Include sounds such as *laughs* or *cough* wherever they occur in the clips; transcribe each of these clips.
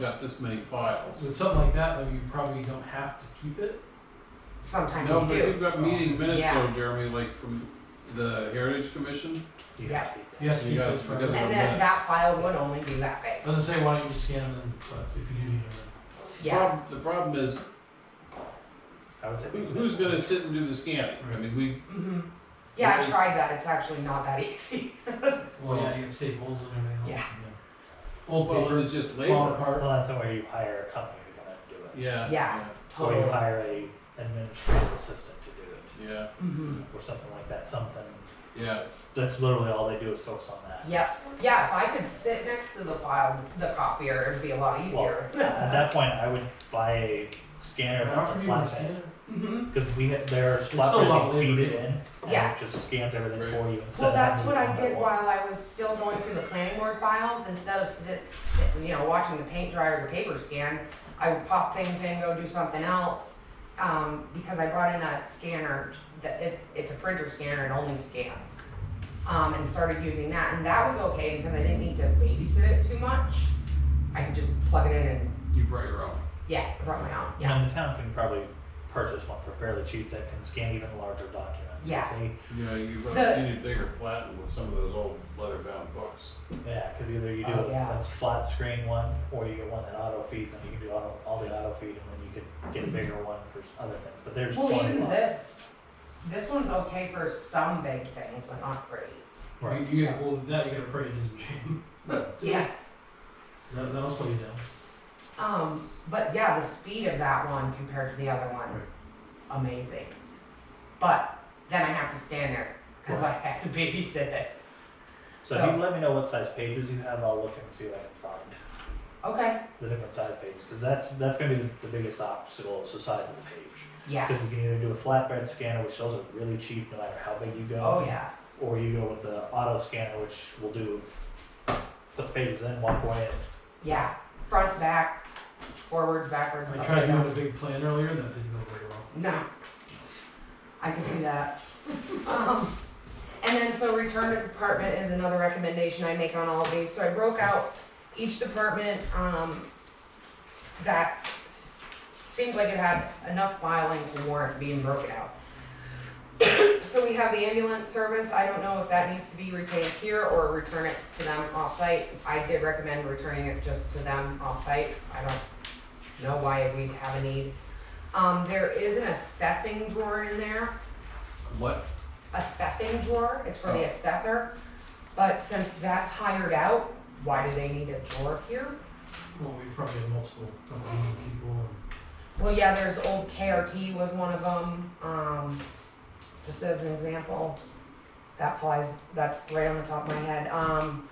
got this many files. With something like that, though, you probably don't have to keep it. Sometimes No, you but you've do. got meeting minutes Yeah. though, Jeremy, like from the Heritage Commission. You Yeah. have to keep You have that. to You keep got- those because of- forever. And that, that file would only be that big. Doesn't say why don't you just scan them, but if you do need them. Yeah. Prob- The problem is, I would say. who- who's gonna sit and do the scanning? I mean, we, hmm Yeah, I Really? tried that. It's actually not that *laughs* easy. Well, yeah, you can staples and everything else. Yeah. Old well, paper, it's just falling labor. apart. Well, that's where you hire a company to come in and do it. Yeah. Oh. Yeah. Or you Totally. hire a administrative assistant to do it, Yeah, hmm or something like that, something, yeah, that's literally all they do is focus on that. Yep. Yeah, if I could sit next to the file, the copier, it'd be a lot Well, easier. At that point, I would buy a scanner How often that's a do you flat scan it? hmm Because we, ha- there are still a lot slot of you feed labor, it yeah. in, and Yeah. it just scans everything Right. for you instead Well, of that's having what to I do it did one by one. while I was still going through the planning board files. Instead of sit, sit- you know watching the paint dry or the paper scan, I would pop things in, go do something else. Um, because I brought in a scanner that it, it's a printer scanner and only scans. Um, and started using that, and that was okay because I didn't need to babysit it too much. I could just plug it in and you brought your own. yeah, I brought my own. Yeah, And the town can probably purchase one for fairly cheap that can scan even larger documents. You Yeah. see? Yeah, you The- brought, you need bigger platen with some of those old leather bound books. Yeah, because either you do Oh, a, yeah. a flat screen one, or you get one that auto feeds, and you can do auto, all the auto feed, and then you could get a bigger one for s- other things. But there's Mm-hmm. well, plenty even of- this, this one's okay for some big things, but not great. Right. You, you get hold of that, you gotta pray it doesn't jam. Yeah, That, that'll slow you down. Um, but yeah, the speed of that one compared to the other one, amazing. But then I have to stand there because I have to babysit it. So, if you let me know what size pages you have, I'll look and see what I can find Okay. the different size pages, because that's that's going to be the, the biggest obstacle is the size of the page. Yeah. Because we can either do a flatbed scanner, which those are really cheap, no matter how big you go. Oh yeah. or you go with the auto scanner, which will do the pages in one way. It's Yeah. Front, back, forwards, backwards. I upside tried doing down. a big plan earlier, that didn't go very well. No. I can see that. Um, and then so return to department is another recommendation I make on all of these. So I broke out each department um, that s- seemed like it had enough filing to warrant being broken out. *coughs* so we have the ambulance service. I don't know if that needs to be retained here or return it to them offsite. I did recommend returning it just to them offsite. I don't know why we have a need. Um, there is an assessing drawer in there, What? assessing drawer, it's for the assessor. But since that's hired out, why do they need a drawer here? Well, we probably have multiple companies and people and Well, yeah, there's old KRT was one of them, um, just as an example. That flies, that's right on the top of my head, um.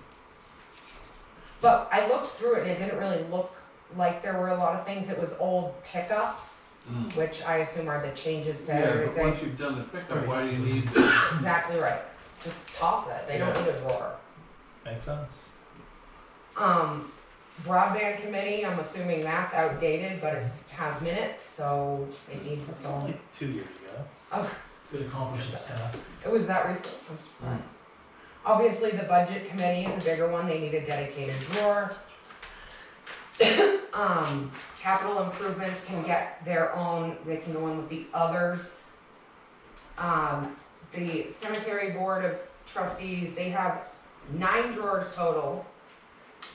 But I looked through it and it didn't really look like there were a lot of things, it was old pickups, Mm. which I assume are the changes to Yeah, everything. but once you've done the pickup, Right. why do you need, Exactly right. Just toss it. They don't Yeah. need a drawer. makes sense. Um, broadband committee, I'm assuming that's outdated, but it has minutes, so it needs its It's own. only two years ago. could accomplish this task. It was that recent. I'm surprised. Obviously, the budget committee is a bigger one. They need a dedicated drawer. *coughs* um, capital improvements can get their own. They can go in with the others. Um, the cemetery board of trustees. They have nine drawers total,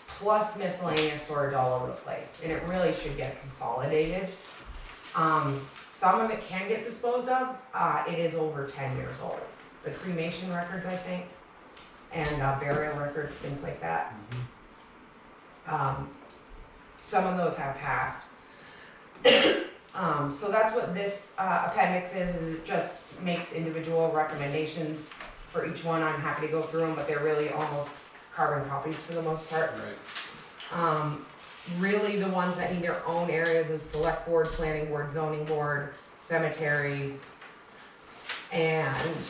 plus miscellaneous storage all over the place, and it really should get consolidated. Um, some of it can get disposed of. Uh, it is over ten years old. The cremation records, I think, and uh, burial records, things like that. Mhm. Um, some of those have passed. *coughs* um, so that's what this uh, appendix is. Is it just makes individual recommendations for each one. I'm happy to go through them, but they're really almost carbon copies for the most part. right? Um, really the ones that need their own areas is select board, planning board, zoning board, cemeteries. And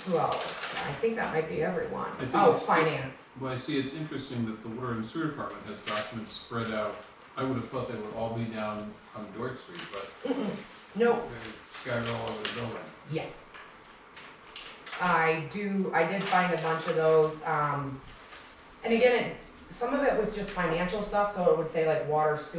who else? I think that might be everyone. I think Oh, it's- finance. Well, I see, it's interesting that the water and sewer department has documents spread out. I would have thought they would all be down on Dork Street, but Nope, they're scattered all over the building. yeah. I do, I did find a bunch of those, um, and again, it, some of it was just financial stuff, so it would say like water, sewer.